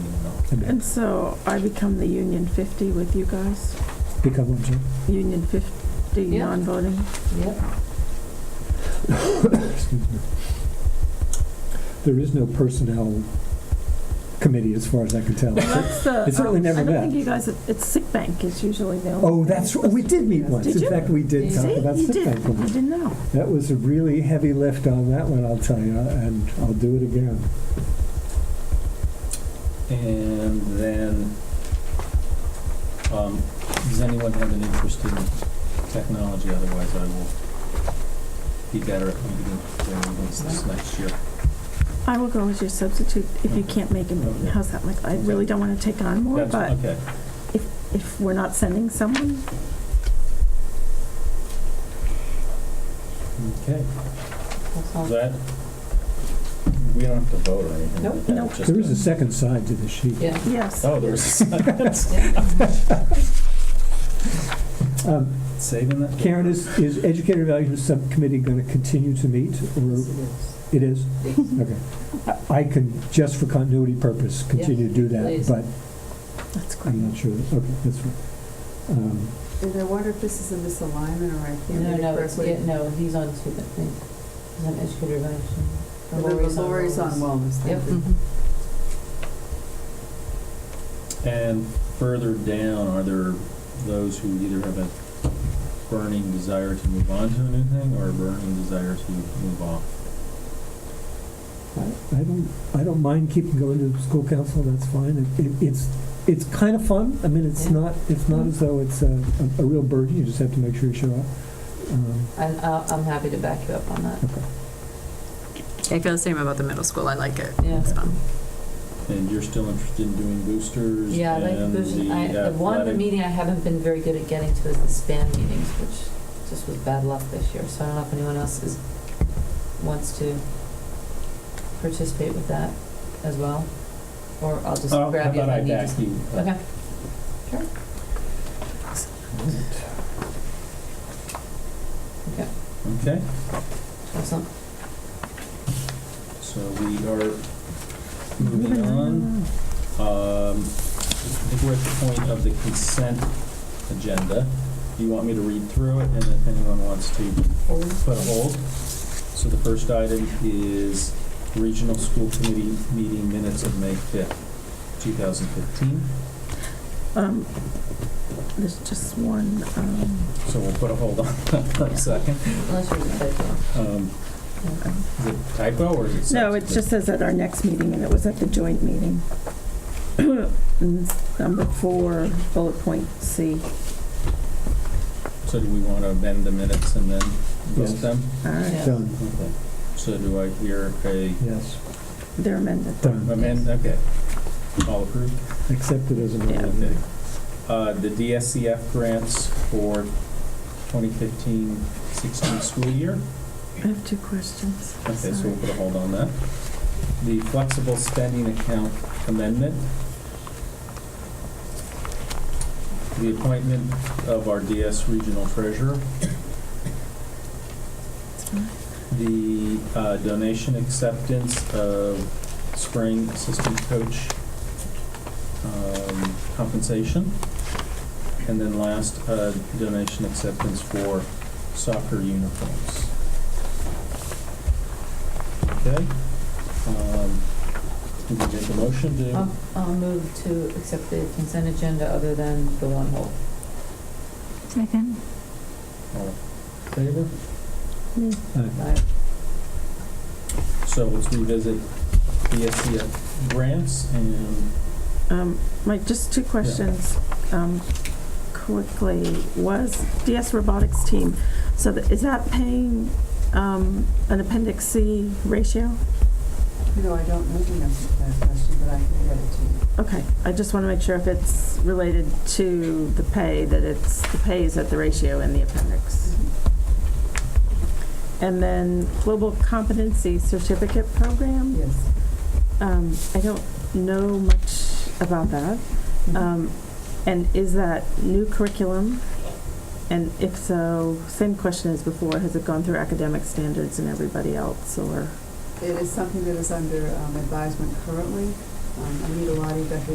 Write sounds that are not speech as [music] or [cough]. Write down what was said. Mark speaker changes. Speaker 1: And so I become the Union 50 with you guys?
Speaker 2: Become one, sir.
Speaker 1: Union 50
Speaker 3: Yeah.
Speaker 1: non-voting?
Speaker 4: [laughs]
Speaker 3: Yep.
Speaker 2: Excuse me. There is no personnel committee, as far as I can tell.
Speaker 1: That's the.
Speaker 2: It's certainly
Speaker 1: um,
Speaker 2: never
Speaker 1: I don't
Speaker 2: met.
Speaker 1: think you guys, it's sick bank is usually the only.
Speaker 2: Oh, that's, right. we did meet once.
Speaker 1: Did
Speaker 2: In
Speaker 1: you?
Speaker 2: fact, we did
Speaker 3: See?
Speaker 2: talk
Speaker 1: See,
Speaker 2: about
Speaker 1: you
Speaker 2: sick
Speaker 1: did,
Speaker 2: bank
Speaker 1: you
Speaker 2: once.
Speaker 1: didn't know.
Speaker 2: That was a really heavy lift on that one, I'll tell you, and I'll do it again.
Speaker 5: And then, um, does anyone have an interest in technology? Otherwise, I will be better at meeting their meetings this next year.
Speaker 1: I will go as your substitute if you can't make a meeting. How's that look? I really don't want to take on more,
Speaker 5: That's-
Speaker 1: but
Speaker 5: Okay,
Speaker 1: if we're not sending someone,
Speaker 5: okay.
Speaker 3: That's all.
Speaker 5: Is that, we don't have to vote or anything?
Speaker 3: Nope.
Speaker 5: Okay,
Speaker 1: Nope.
Speaker 5: just
Speaker 2: There is a second side to the sheet.
Speaker 3: Yeah.
Speaker 1: yes.
Speaker 5: Oh, there's,
Speaker 3: [laughs] Yeah.
Speaker 2: Um,
Speaker 5: saving that?
Speaker 2: Karen, is, is Educator Evaluation Subcommittee going to continue to meet, or it is? Okay. I- I can, just for continuity purpose, continue to do that,
Speaker 3: please.
Speaker 2: but
Speaker 1: That's
Speaker 2: I'm
Speaker 1: great.
Speaker 2: not sure, okay, that's fine. Um,
Speaker 6: And I wonder if this is a misalignment or I can't
Speaker 3: No,
Speaker 6: read it
Speaker 3: no, it's-
Speaker 6: correctly.
Speaker 3: yeah, no, he's on two, I think. He's on educator evaluation. Or
Speaker 6: Remember,
Speaker 3: Lori's on
Speaker 6: Lori's on
Speaker 3: wellness.
Speaker 6: wellness,
Speaker 3: Yep.
Speaker 6: thank you.
Speaker 4: Mm-hmm.
Speaker 5: And further down, are there those who either have a burning desire to move on to a new thing or a burning desire to move off?
Speaker 2: I I don't, I don't mind keeping going to the school council, that's fine. It- it- It's, it's kind of fun, I mean, it's
Speaker 3: Yeah.
Speaker 2: not, it's not as though it's a, a a real burden, you just have to make sure you show up. Um,
Speaker 3: And I'll- I'm happy to back you up on that.
Speaker 4: I feel the same about the middle school. I like it.
Speaker 3: Yeah.
Speaker 4: It's fun.
Speaker 5: And you're still interested in doing boosters?
Speaker 3: Yeah, I like
Speaker 5: and
Speaker 3: Fusion.
Speaker 5: the
Speaker 3: I, the one
Speaker 5: athletic-
Speaker 3: meeting I haven't been very good at getting to is the span meetings, which just was bad luck this year. So I don't know if anyone else is, wants to participate with that as well, or I'll just
Speaker 5: Oh,
Speaker 3: grab you if
Speaker 5: How
Speaker 3: I
Speaker 5: about I
Speaker 3: need
Speaker 5: back
Speaker 3: to.
Speaker 5: you? up?
Speaker 3: Okay. Okay.
Speaker 5: Okay,
Speaker 3: Excellent.
Speaker 5: so we are moving
Speaker 3: Mm-hmm.
Speaker 5: on. Um, I think we're at the point of the consent agenda. Do you want me to read through it and if anyone wants to put a hold? So the first item is Regional School Committee meeting minutes of May 5th, 2015.
Speaker 1: Um, There's just one, um,
Speaker 5: So we'll put a hold on [laughs] that for a second.
Speaker 3: Unless you're just like,
Speaker 5: Um,
Speaker 3: yeah.
Speaker 5: Is it typo or is it?
Speaker 1: no, it just says at our next meeting, and it was at the joint meeting. [clears throat] And it's Number four, bullet point C.
Speaker 5: So do we want to amend the minutes and then vote
Speaker 2: Yes.
Speaker 5: them?
Speaker 1: All right,
Speaker 3: Yeah.
Speaker 2: Done,
Speaker 5: Okay. So do I hear a
Speaker 2: yes,
Speaker 1: they're amended.
Speaker 2: done,
Speaker 5: amend? Okay. All approved?
Speaker 2: accepted as an
Speaker 1: Yeah.
Speaker 5: Okay. Uh, The DSCF grants for 2015-16 school year.
Speaker 1: I have two questions.
Speaker 5: Okay, so
Speaker 1: Sorry.
Speaker 5: we'll put a hold on that. The flexible spending account amendment. The appointment of our DS regional treasurer. The uh, donation acceptance of spring assistant coach um, compensation. And then last, uh, donation acceptance for soccer uniforms. Okay. Um, Do we make a motion to?
Speaker 3: I'll, I'll move to accept the consent agenda other than the one hold.
Speaker 4: Second.
Speaker 5: All in Favor?
Speaker 3: Right.
Speaker 5: So let's revisit the SEF grants and,
Speaker 1: Um, Mike, just two questions, um, quickly. Was DS Robotics team, so that- is that paying, um, an appendix C ratio?
Speaker 6: You know, I don't know the answer to that question, but I can get it to you.
Speaker 1: Okay, I just want to make sure if it's related to the pay, that it's, the pay is at the ratio in the appendix. And then Global Competency Certificate Program?
Speaker 6: Yes.
Speaker 1: Um, I don't know much about that.
Speaker 3: Uh,
Speaker 1: Um, and is that new curriculum? And if so, same question as before, has it gone through academic standards and everybody else, or?
Speaker 6: It is something that is under um, advisement currently. Um, Anita Lottie, Becky